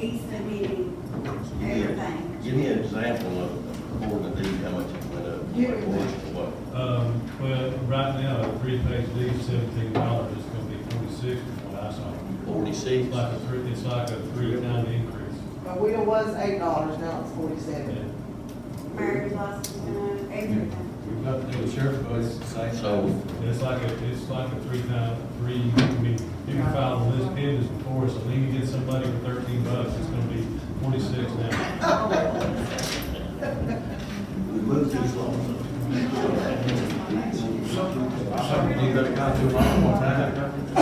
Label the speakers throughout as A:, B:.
A: Easton meeting,
B: Give me a-
A: everything.
B: Give me an example of, according to these, how much it went up, what it was, what.
C: Um, well, right now, a three-page deed, seventeen dollars, it's gonna be forty-six, is what I saw.
B: Forty-six?
C: It's like a three, it's like a three-time increase.
D: My wheel was eight dollars, now it's forty-seven.
C: And
A: Mary lost, uh, everything.
E: We've got to do the sheriff budget, same.
B: So,
C: It's like a, it's like a three-time, three, I mean, you can file a list pendants before, so then you get somebody for thirteen bucks, it's gonna be forty-six now.
B: we moved too slow.
E: Something you gotta go through all one time. The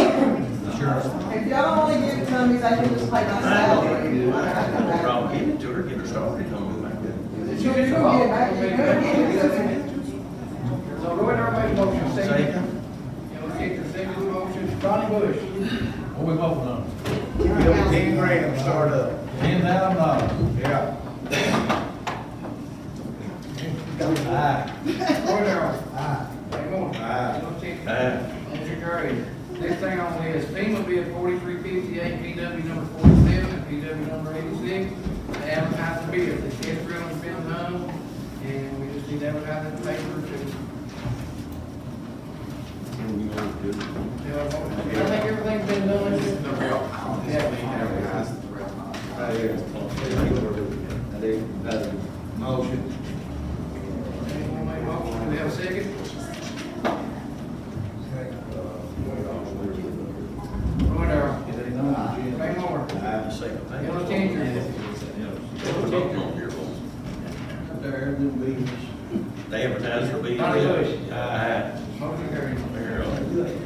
E: sheriff's
D: If y'all only give it to me, I can just pay my salary.
B: I have no problem giving it to her, get her started on it like that.
D: You're gonna get it back, you're gonna get it.
F: So Roy Darrell made a motion, second.
B: Second?
F: You know, second, second motion, Johnny Bush.
E: What we voting on?
F: Ten grand, start up.
E: Ten thousand dollars.
F: Yeah.
E: Aye.
F: Roy Darrell. Aye. Ray Moore.
B: Aye.
F: Joe Chick.
B: Aye.
F: Motion carried. Next thing on the list, FEMA bid forty-three fifty-eight, PW number forty-seven, PW number eighty-six, to advertise the bid. The test drill has been done, and we just need to advertise it in the paper to
B: And you know, good.
F: Yeah, I think everything's been done. Yeah.
E: Oh, Motion.
F: Anyone make a motion? Do we have a second?
E: uh,
F: Roy Darrell. Ray Moore.
B: I have to say, thank you.
F: Bill Changer.
E: There, new business.
B: They advertise for being.
F: Johnny Bush.
B: Aye.
F: Motion carried.
B: There,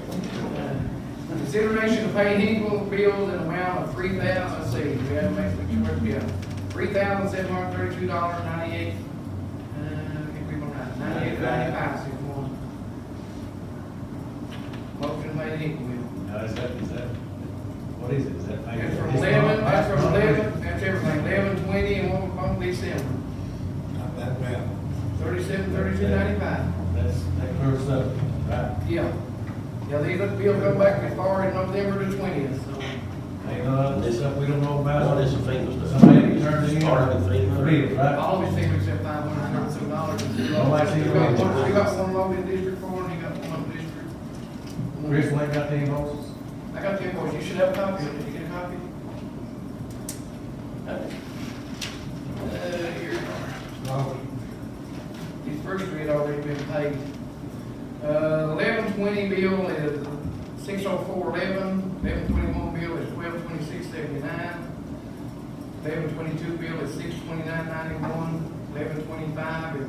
F: Consideration to pay Hinkle bills in amount of three thousand, let's see, we have to make sure it's bill. Three thousand seven hundred thirty-two dollars ninety-eight. Uh, I think we're gonna, ninety-eight, ninety-five, six one. Motion made Hinkle bill.
E: Now, is that, is that, what is it? Is that?
F: That's from eleven, that's from eleven, that's everything, eleven twenty and one from December,
E: Not that bad.
F: thirty-seven, thirty-two ninety-five.
E: That's, that clears up, right?
F: Yeah, yeah, these look, bill go back as far as November the twentieth, so.
E: Ain't none of this stuff we don't know
B: What
E: about.
B: is the FEMA stuff?
E: Somebody turned in.
B: Started with FEMA.
E: Real, right?
F: All of these things except five hundred and thirty-two dollars. You
E: Nobody seen it.
F: got one low in District Four and you got one up in District. one.
E: Chris Lane got the invoices?
F: I got two more, you should have a copy, of it. did you get a copy? Uh, here. These first three had already been paid. Uh, eleven twenty bill is six oh four eleven, eleven twenty-one bill is twelve twenty-six seventy-nine, eleven twenty-two bill is six twenty-nine ninety-one, eleven twenty-five is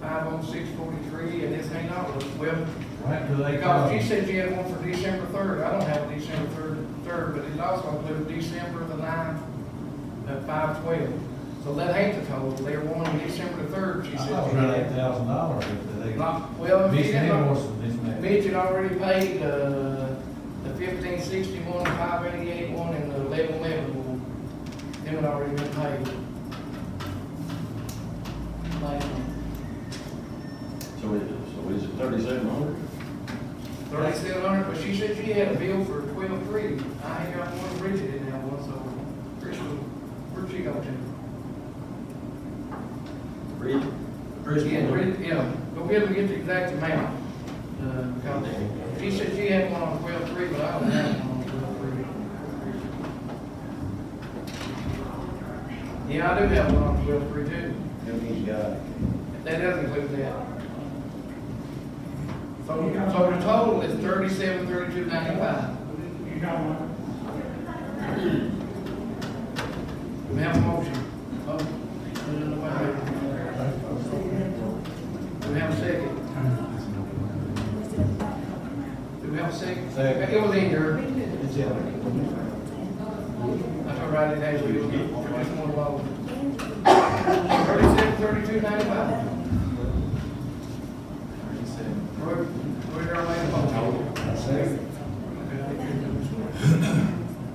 F: five oh six forty-three, and this ain't all, well,
E: Right, do they?
F: because she said she had one for December third, I don't have December third, third, but it also includes December the ninth, at five twelve. So that ain't the total, they're wanting December the third, she
E: I
F: said.
E: thought it was around eight thousand dollars, if they.
F: Not- Well, she
E: Missing
F: didn't, know-
E: invoices, missing that.
F: Mitch had already paid, uh, the fifteen sixty-one, five eighty-eight one, and the eleven eleven one. Them had already been paid. Last one.
B: So it, so is it thirty-seven hundred?
F: Thirty-seven hundred, but she said she had a bill for twelve-three, I ain't got one, Bridget didn't have one, so, Chris was, where'd she go to?
B: Bridge?
F: Yeah, Bridget, yeah, but we haven't get the exact amount, uh, because she said she had one on twelve-three, but I don't have one on twelve-three. Yeah, I do have one on twelve three too. That doesn't include that. So, so the total is thirty-seven, thirty-two, ninety-five. We have a motion. Oh, Do we have a second? Do we have a second? Uh,
E: Second.
F: It was in there.
E: It's in there.
F: That's all right, it has to be. It's more low. Thirty-seven, thirty-two, ninety-five. Roy, Roy Darrell made a motion.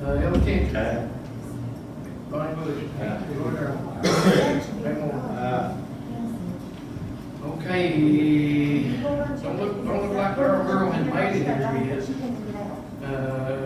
F: Uh, Ellis Cantor.
B: Aye.
F: Bonnie Bush.
E: Aye.
F: Roy Darrell. Ray Moore. Okay, don't look, don't look like our girl has made it here yet. Uh,